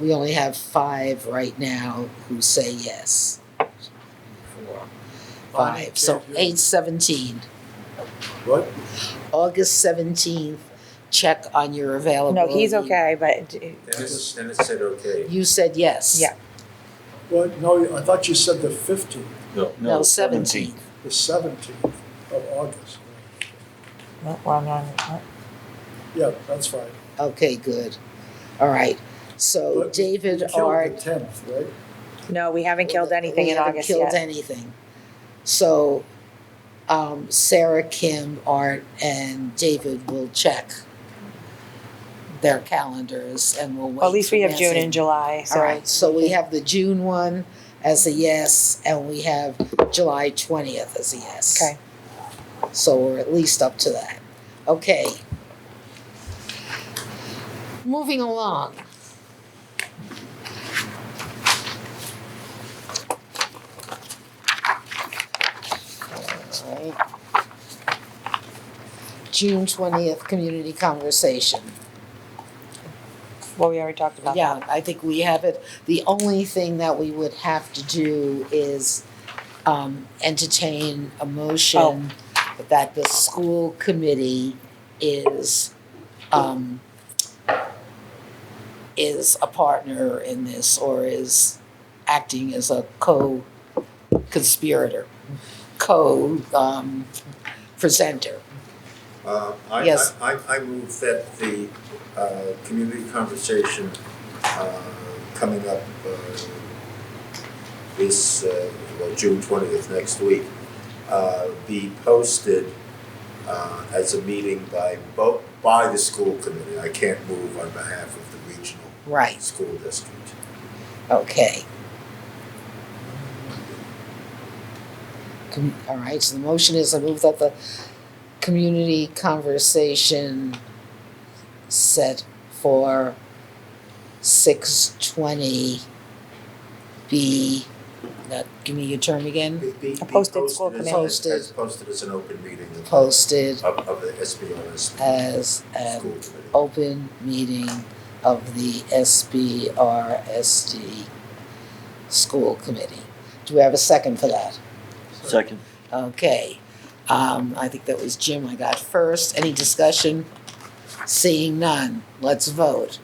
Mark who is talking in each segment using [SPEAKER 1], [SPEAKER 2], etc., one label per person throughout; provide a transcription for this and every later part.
[SPEAKER 1] we only have five right now who say yes. Four, five, so eight seventeen,
[SPEAKER 2] What?
[SPEAKER 1] August seventeenth, check on your
[SPEAKER 3] No,
[SPEAKER 1] availability.
[SPEAKER 3] he's okay, but
[SPEAKER 4] Dennis, Dennis said okay.
[SPEAKER 1] You said yes.
[SPEAKER 3] Yeah.
[SPEAKER 2] What, no, I thought you said the fifteenth,
[SPEAKER 1] No, seventeenth.
[SPEAKER 2] the seventeenth of August.
[SPEAKER 3] well, no, no,
[SPEAKER 2] Yeah, that's fine.
[SPEAKER 1] Okay, good. All right, so
[SPEAKER 2] But
[SPEAKER 1] David
[SPEAKER 2] You killed
[SPEAKER 1] Art.
[SPEAKER 2] the tenth, right?
[SPEAKER 3] no, we haven't killed anything
[SPEAKER 1] we
[SPEAKER 3] in
[SPEAKER 1] haven't
[SPEAKER 3] August
[SPEAKER 1] killed
[SPEAKER 3] yet.
[SPEAKER 1] anything. So um, Sarah, Kim, Art, and David will check their calendars and we'll wait.
[SPEAKER 3] Well, At least we
[SPEAKER 1] for
[SPEAKER 3] have June
[SPEAKER 1] Nancy.
[SPEAKER 3] and July,
[SPEAKER 1] All
[SPEAKER 3] so
[SPEAKER 1] right, so we have the June one as a yes, and we have July twentieth as a yes.
[SPEAKER 3] Okay.
[SPEAKER 1] So we're at least up to that. Okay. Moving along. All right. June twentieth, community conversation.
[SPEAKER 3] well, we already talked about that.
[SPEAKER 1] Yeah, I think we have it. The only thing that we would have to do is um entertain a motion that the school committee is um is a partner in this or is acting as a co-conspirator, co um presenter.
[SPEAKER 4] Uh, I,
[SPEAKER 1] Yes.
[SPEAKER 4] I, I- I move that the, uh, community conversation, uh, coming up, uh, this, uh, well, June twentieth next week, uh, be posted, uh, as a meeting by bo- by the school committee. I can't move on behalf of the regional
[SPEAKER 1] Right,
[SPEAKER 4] school district.
[SPEAKER 1] okay. Com- All right, so the motion is I move that the community conversation set for six twenty be, that, give me your term again,
[SPEAKER 4] Be- be-
[SPEAKER 3] A posted school
[SPEAKER 4] be posted as-
[SPEAKER 1] committee.
[SPEAKER 4] as- As posted as an open meeting of,
[SPEAKER 1] posted
[SPEAKER 4] of the SBRS
[SPEAKER 3] Um,
[SPEAKER 1] as
[SPEAKER 4] school
[SPEAKER 1] an
[SPEAKER 4] committee.
[SPEAKER 1] open meeting of the SBRSD school committee. Do we have a second for that?
[SPEAKER 5] Second.
[SPEAKER 1] Okay, um, I think that was Jim I got first. Any discussion? Seeing none, let's vote.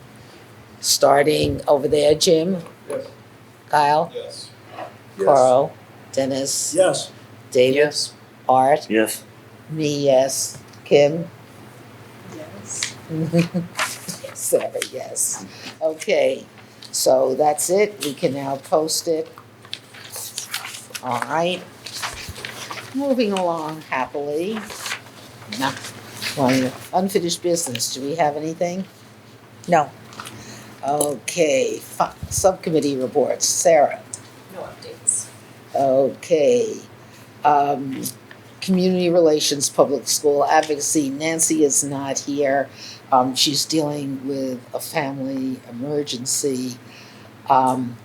[SPEAKER 1] Starting over there, Jim?
[SPEAKER 2] Yes.
[SPEAKER 1] Kyle?
[SPEAKER 2] Yes.
[SPEAKER 4] Yes.
[SPEAKER 1] Carl? Dennis?
[SPEAKER 2] Yes,
[SPEAKER 1] David? Art?
[SPEAKER 5] Yes.
[SPEAKER 1] Me, yes. Kim?
[SPEAKER 6] Yes.
[SPEAKER 1] Sorry, yes. Okay, so that's it. We can now post it. All right. Moving along happily. Nah, well, Unfinished business. Do we have anything?
[SPEAKER 3] No,
[SPEAKER 1] Okay, fi- subcommittee reports. Sarah?
[SPEAKER 6] No updates.
[SPEAKER 1] Okay. Um, Community Relations Public School Advocacy, Nancy is not here. Um, she's dealing with a family emergency. Um,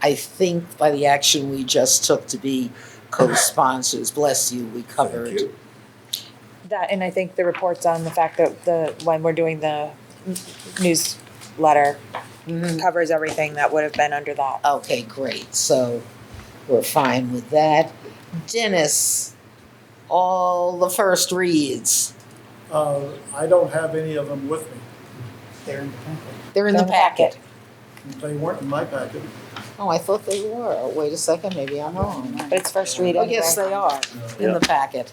[SPEAKER 1] I think by the action we just took to be co-sponsors, bless you, we covered.
[SPEAKER 4] Thank you.
[SPEAKER 3] that, and I think the reports on the fact that the, when we're doing the newsletter
[SPEAKER 1] Mhm.
[SPEAKER 3] covers everything that would have been under that.
[SPEAKER 1] Okay, great, so we're fine with that. Dennis, all the first reads,
[SPEAKER 2] uh, I don't have any of them with me.
[SPEAKER 6] They're in the packet.
[SPEAKER 1] they're in the
[SPEAKER 3] They're in the packet.
[SPEAKER 1] packet.
[SPEAKER 2] They weren't in my packet.
[SPEAKER 1] Oh, I thought they were. Oh, Wait a second, maybe I'm wrong.
[SPEAKER 3] But it's first read
[SPEAKER 1] Oh,
[SPEAKER 3] anyway.
[SPEAKER 1] yes, they are, in the packet.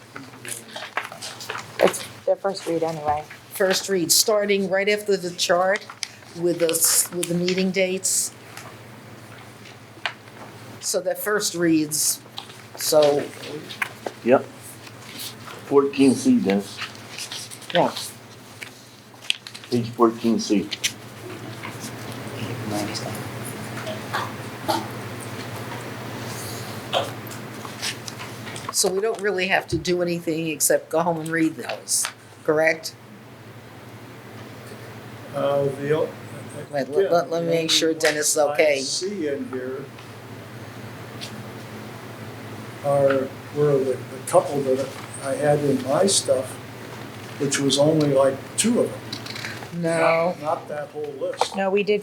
[SPEAKER 3] It's their first read anyway.
[SPEAKER 1] First read, starting right after the chart with the, s- with the meeting dates. So the first reads, so,
[SPEAKER 5] Yep. Fourteen C, Dennis.
[SPEAKER 1] yeah,
[SPEAKER 5] Page fourteen C.
[SPEAKER 1] so we don't really have to do anything except go home and read those, correct?
[SPEAKER 2] Uh, the o-
[SPEAKER 1] Wait, let- let- let me make sure Dennis is okay.
[SPEAKER 2] I see in here are, were the, the couple that I had in my stuff, which was only like two of them.
[SPEAKER 1] No.
[SPEAKER 2] Not that whole list.
[SPEAKER 3] No, we did